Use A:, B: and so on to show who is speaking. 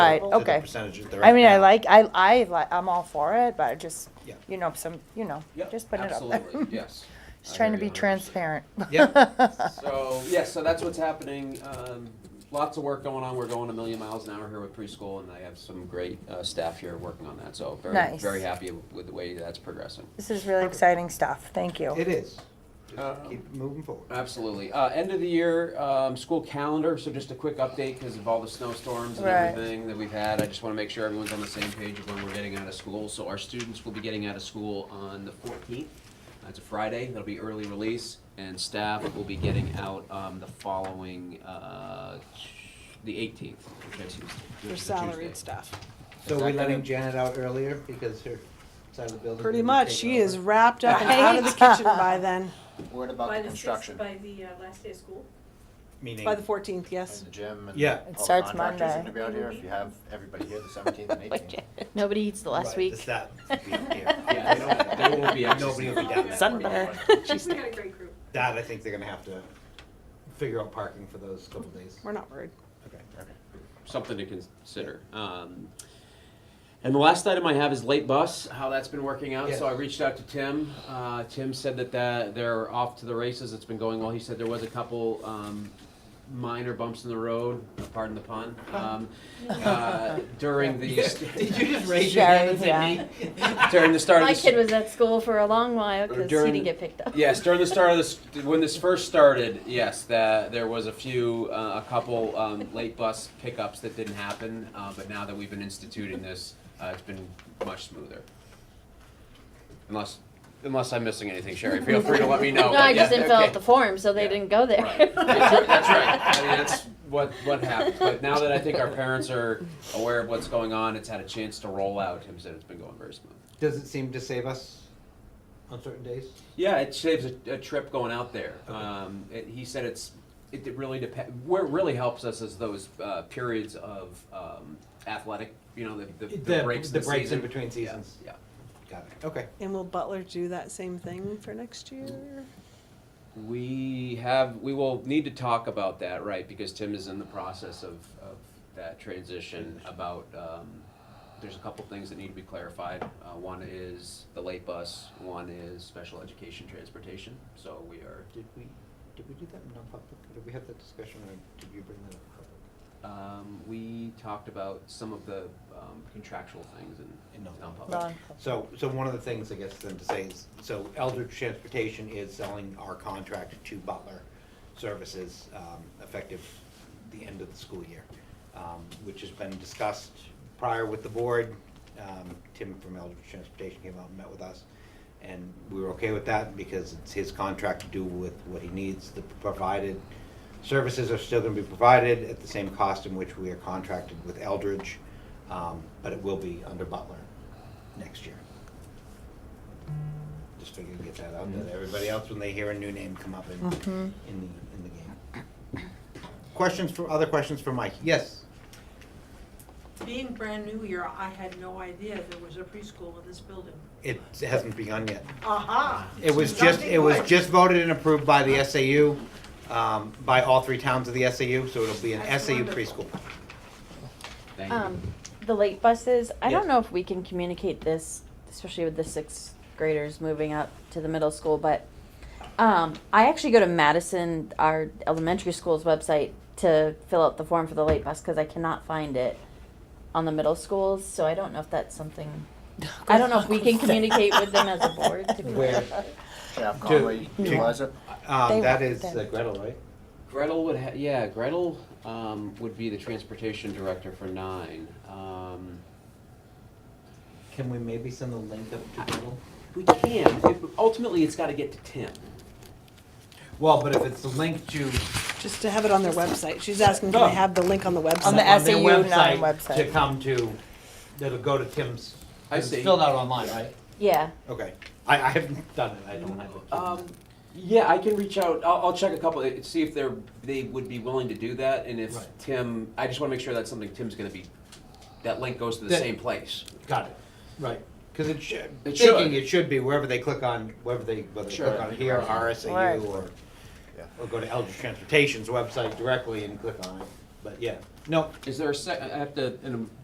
A: Right,
B: to the
A: okay.
B: percentages they're
A: I
B: at
A: mean, I
B: now.
A: like, I, I, li- I'm all for it, but I just,
B: Yeah.
A: you know, some, you know,
C: Yep,
A: just put it up there.
C: Absolutely, yes.
A: Just
C: I
A: trying to
C: hear
A: be
C: you 100%.
A: transparent.
C: So, yeah, so that's what's happening. Um, lots of work going on. We're going a million miles an hour here with preschool, and I have some great uh, staff here working on that. So, very,
A: Nice.
C: very happy with the way that's progressing.
A: This is really exciting stuff, thank you.
B: It is. Just
C: Um,
B: keep moving forward.
C: Absolutely. Uh, end of the year, um, school calendar. So, just a quick update because of all the snowstorms and
A: Right.
C: everything that we've had. I just want to make sure everyone's on the same page of when we're getting out of school. So, our students will be getting out of school on the 14th. That's a Friday. That'll be early release, and staff will be getting out um, the following, uh, the 18th, which I Tuesday. which is
D: Your
C: a Tuesday.
D: salaried staff.
B: So
C: Is
B: we're
C: that
B: letting
C: gonna-
B: Janet out earlier because her side of the building.
D: Pretty
B: didn't
D: much,
B: take
D: she
B: over?
D: is wrapped up and out of the kitchen by then,
E: What about the
F: By the sixth,
E: construction?
F: by the uh, last day of school.
B: Meaning,
D: by the fourteenth, yes.
E: And the gym and.
B: Yeah. It
E: all the
A: starts
E: contractors are
A: Monday.
E: gonna be out here, if you have everybody here the seventeenth and eighteenth.
G: Nobody eats the last
B: right,
G: week.
B: it's that being here.
C: Yeah, they don't, they won't be accessing
B: Nobody will be down there.
G: Sunday.
F: She's got a great group.
B: That, I think they're gonna have to figure out parking for those couple days.
D: We're not worried.
B: Okay.
C: something to consider. Um, and the last item I have is late bus, how that's been working out. So I
B: Yes.
C: reached out to Tim. Uh, Tim said that, that they're off to the races. It's been going well. He said there was a couple um, minor bumps in the road, pardon the pun, um, uh, during the
B: Did you just raise your hand and say me?
C: during the start
G: My
C: of the
G: kid was at school for a long while
C: Or
G: because he
C: during-
G: didn't get picked up.
C: Yes, during the start of this, when this first started, yes, that there was a few, uh, a couple um, late bus pickups that didn't happen, uh, but now that we've been instituting this, uh, it's been much smoother. Unless, unless I'm missing anything, Sherry, feel free to let me know.
G: No,
C: but
G: I
C: yeah,
G: just didn't fill
C: okay.
G: out the form, so they
C: Yeah.
G: didn't go there.
C: Right. That's right, that's right. I mean, that's what, what happened. But now that I think our parents are aware of what's going on, it's had a chance to roll out, Tim said it's been going very smooth.
B: Does it seem to save us on certain days?
C: Yeah, it saves a, a trip going out there.
B: Okay.
C: Um, it, he said it's it, it really depends. Where it really helps us is those uh, periods of um, athletic, you know, the, the, the, breaks, in
B: The
C: the
B: breaks in
C: season.
B: between seasons.
C: Yeah.
B: Got it, okay.
D: And will Butler do that same thing for next year?
C: We have we will need to talk about that, right? Because Tim is in the process of, of that transition. About um, there's a couple things that need to be clarified. Uh, one is the late bus. One is special education transportation. So we are.
B: Did we, did we do that in non-public? Did we have that discussion or did you bring that up? public?
C: Um, we talked about some of the um, contractual things in,
B: In
C: in
B: non-public.
C: non-public.
A: Well,
B: So, so one of the things, I guess, then to say is, so Eldridge Transportation is selling our contract to Butler Services, um, effective the end of the school year, um, which has been discussed prior with the board. Um, Tim from Eldridge Transportation came out and met with us, and we were okay with that because it's his contract to do with what he needs, the provided services are still gonna be provided at the same cost in which we are contracted with Eldridge, um, but it will be under Butler next year. Just figured to get that out there to everybody else when they hear a new name come up in, in the, in the game. Questions for, other questions for Mike? Yes.
F: Being brand new here, I had no idea there was a preschool in this building.
B: It hasn't begun yet.
F: Aha!
B: It was just, it was just voted and approved by the SAU, um, by all three towns of the SAU, so it'll be an
F: That's
B: SAU
F: wonderful.
B: preschool.
C: Thank you.
G: Um, the late buses, I
B: Yes.
G: don't know if we can communicate this, especially with the sixth graders moving up to the middle school, but um, I actually go to Madison, our elementary school's website, to fill out the form for the late bus because I cannot find it on the middle schools. So I don't know if that's something. I don't know if we can communicate with them as a board. To be
B: Where,
E: Jeff Conway,
B: to-
E: Eliza,
B: um,
A: They
B: that
A: were
B: is uh,
A: then.
B: Gretel, right?
C: Gretel would ha- yeah, Gretel um, would be the transportation director for nine. Um,
B: Can we maybe send the link up to Gretel?
C: we can. It, ultimately, it's got to get to Tim.
B: Well, but if it's the link to
D: Just to have it on their website. She's asking, can I have the link on the website?
A: On the
B: their
A: SAU nine website.
B: To come to, that'll go to Tim's.
C: I
B: it's
C: see.
B: Filled out online, right?
G: yeah.
B: Okay. I, I haven't done it, I don't have it.
C: Um, yeah, I can reach out. I'll, I'll check a couple. uh, See if they're they would be willing to do that, and if
B: Right.
C: Tim, I just want to make sure that's something Tim's going to be. That link goes to the
B: That-
C: same place.
B: Got it, right. Because it should,
C: It
B: thinking
C: should.
B: it should be wherever they click on, wherever they, whether they click
C: Sure.
B: on here,
E: Right.
B: RSAU, or,
E: Yeah.
B: or go to Eldridge Transportation's website directly and click on it. but yeah, no,
C: Is there a sec, I have to, in a